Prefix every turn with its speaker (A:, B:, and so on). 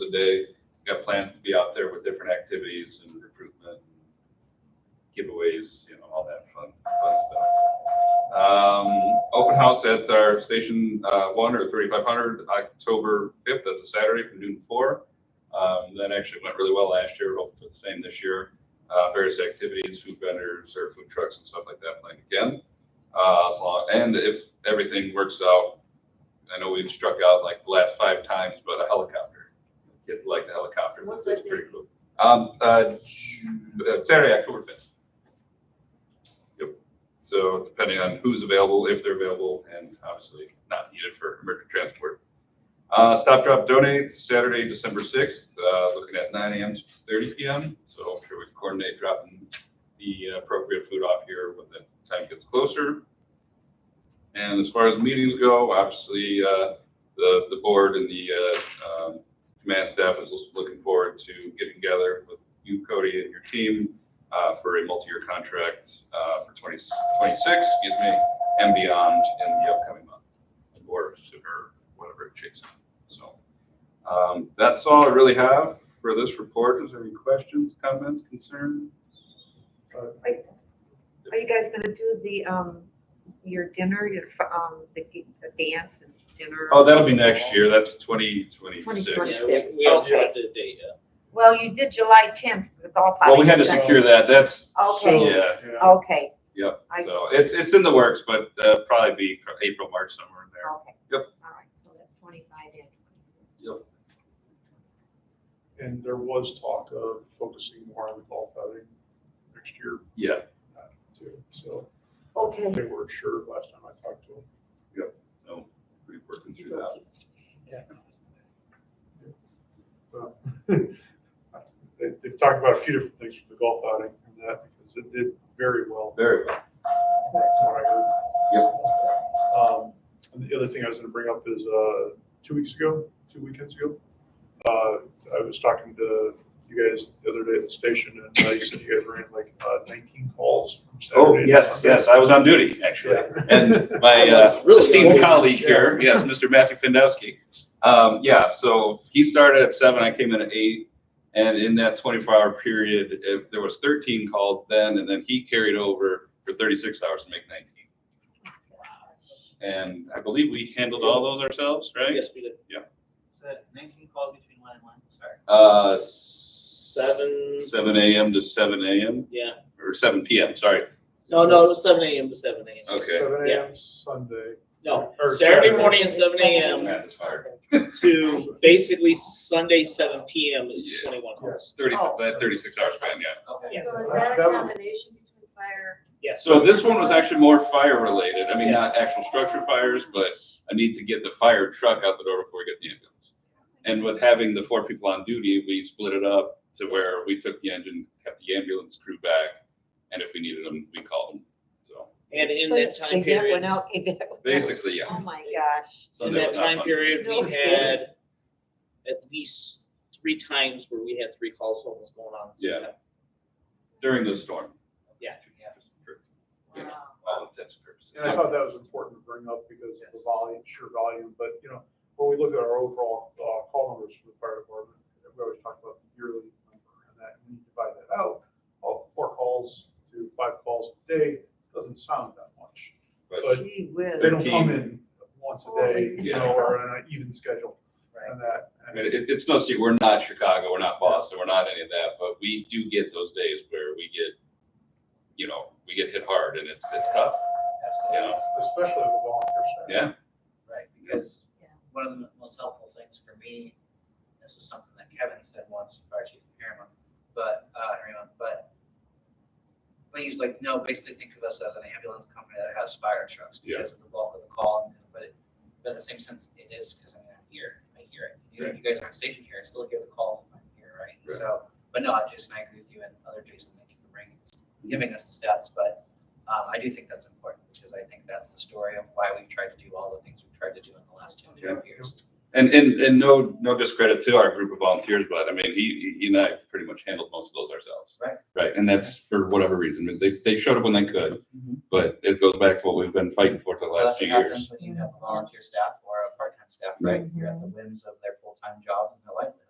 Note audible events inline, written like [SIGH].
A: Day. We've Got plans to be out there with different activities and recruitment, giveaways, you know, all that fun, fun stuff. Um, open house at our station, uh, one or thirty-five hundred, October fifth, that's a Saturday from noon to four. Um, that actually went really well last year, hope for the same this year. Uh, various activities, food vendors or food trucks and stuff like that playing again. Uh, as long, and if everything works out, I know we've struck out like the last five times, but a helicopter. Kids like the helicopter,
B: What's
A: that's
B: that
A: pretty cool. Um, uh, Ju- uh, Saturday, October fifth. So depending on who's available, if they're available, and obviously not needed for emergent transport. Uh, Stop Drop Donate, Saturday, December sixth, uh, looking at nine AM to thirty PM. So I'm sure we can coordinate dropping the appropriate food off here when the time gets closer. And as far as meetings go, obviously, uh, the, the board and the, uh, um, command staff is looking forward to getting together with you, Cody, and your team uh, for a multi-year contract uh, for 20 26, excuse me, and beyond in the upcoming month or sooner, whatever it shakes out. So um, that's all I really have for this report. Is there any questions, comments, concerns?
B: Are you guys gonna do the, um, your dinner, your, f- um, the, g- the dance and dinner?
A: Oh, that'll be next year. That's 2026.
B: 2026.
C: Yeah, we- We don't have the date yet.
B: Well, you did July tenth for the golf.
A: Well, we had to
B: outing.
A: secure that. That's,
B: Okay.
A: yeah,
B: Okay,
A: yep.
B: I
A: So
B: see.
A: it's, it's in the works, but uh, probably be April, March, somewhere in there.
B: okay.
A: Yep.
B: All right, so that's twenty-five and twenty-six.
A: Yep.
D: And there was talk of focusing more on the golf outing next year
A: Yeah,
D: too, so
B: Okay.
D: they weren't sure last time I talked to them.
A: so we're working through that.
D: but [LAUGHS] They, they talked about a few different things for the golf outing and that, because it did very well.
A: Very well.
D: That's what I heard. Um, and the other thing I was gonna bring up is, uh, two weeks ago, two weekends ago, uh, I was talking to you guys the other day at the station and uh, you said you guys ran like, uh, nineteen calls from
A: Oh,
D: Saturday. to
A: yes,
D: Sunday.
A: yes, I was on duty, actually.
D: Yeah.
A: And
D: [LAUGHS]
A: my uh,
C: Really?
A: esteemed colleague here, yes, Mr. Matthew Fandowski. Um, yeah, so he started at seven, I came in at eight. And in that twenty-four hour period, if there was thirteen calls then, and then he carried over for thirty-six hours to make nineteen. And I believe we handled all those ourselves, right?
C: Yes, we did.
E: So nineteen calls between one and one, sorry.
A: Uh,
C: Seven,
A: seven AM to seven AM,
C: yeah.
A: or seven PM, sorry.
C: No, no, it was seven AM to seven AM.
A: Okay.
D: Seven
C: Yeah.
D: AM Sunday.
C: No,
D: Or
C: Saturday morning at seven AM
A: Yeah, it's fire.
C: [LAUGHS] to basically Sunday seven PM is
A: Yeah.
C: twenty-one calls.
A: Thirty-six,
B: Oh.
A: that thirty-six hours span, yeah.
E: Okay.
C: Yeah.
F: So is that a
D: That would-
F: combination between fire?
C: Yes.
A: So this one was actually more fire related. I mean, not actual structure fires, but I need to get the fire truck out the door before we get the ambulance. And with having the four people on duty, we split it up to where we took the engine, kept the ambulance crew back, and if we needed them, we called them. So
C: And in
B: So
C: that time
B: Yvette went
C: period,
B: out, Yvette went out.
A: basically, yeah.
B: Oh, my gosh.
C: in
A: Sunday
C: that
A: was not
C: time
A: fun.
C: period,
B: No
C: we
B: kidding.
C: had at least three times where we had three calls homeless going on. at the same
A: Yeah.
C: time.
A: During the storm.
C: Yeah.
A: For All intents and purposes.
D: And I thought that was important to bring up because of the volume, sure volume, but you know, when we look at our overall, uh, call numbers for the fire department, we always talk about the yearly number and that, when you divide that out, all four calls to five calls a day, doesn't sound that much.
A: But
B: Gee whiz.
D: They don't come in once a day, you know,
A: Yeah.
D: or on an even schedule and that.
A: I
D: and-
A: mean, it, it's no secret, we're not Chicago, we're not Boston, we're not any of that, but we do get those days where we get, you know, we get hit hard and it's, it's tough, you
E: Absolutely,
A: know,
D: Especially with volunteer staff.
A: yeah.
E: right, because one of the most helpful things for me, this was something that Kevin said once, fire chief Harriman, but, uh, Harriman, but when he was like, no, basically think of us as an ambulance company that has fire trucks
A: Yeah.
E: because of the bulk of the call, but it, but in the same sense, it is, because I mean, I'm here, I hear it. You know, you guys aren't stationed here, I still hear the calls when I'm here, right?
A: Right.
E: So, but no, I just, and I agree with you and other Jason, thank you for bringing this, giving us the stats, but um, I do think that's important because I think that's the story of why we've tried to do all the things we've tried to do in the last two and a half years.
A: And, and, and no, no discredit to our group of volunteers, but I mean, he, he and I pretty much handled most of those ourselves.
E: Right.
A: Right, and that's for whatever reason, I mean, they, they showed up when they could, but it goes back to what we've been fighting for for the
E: Well,
A: last
E: that's
A: few
E: what
A: years.
E: happens When you have a volunteer staff or a part-time staff, right? You're at the whims of their full-time jobs and their livelihoods.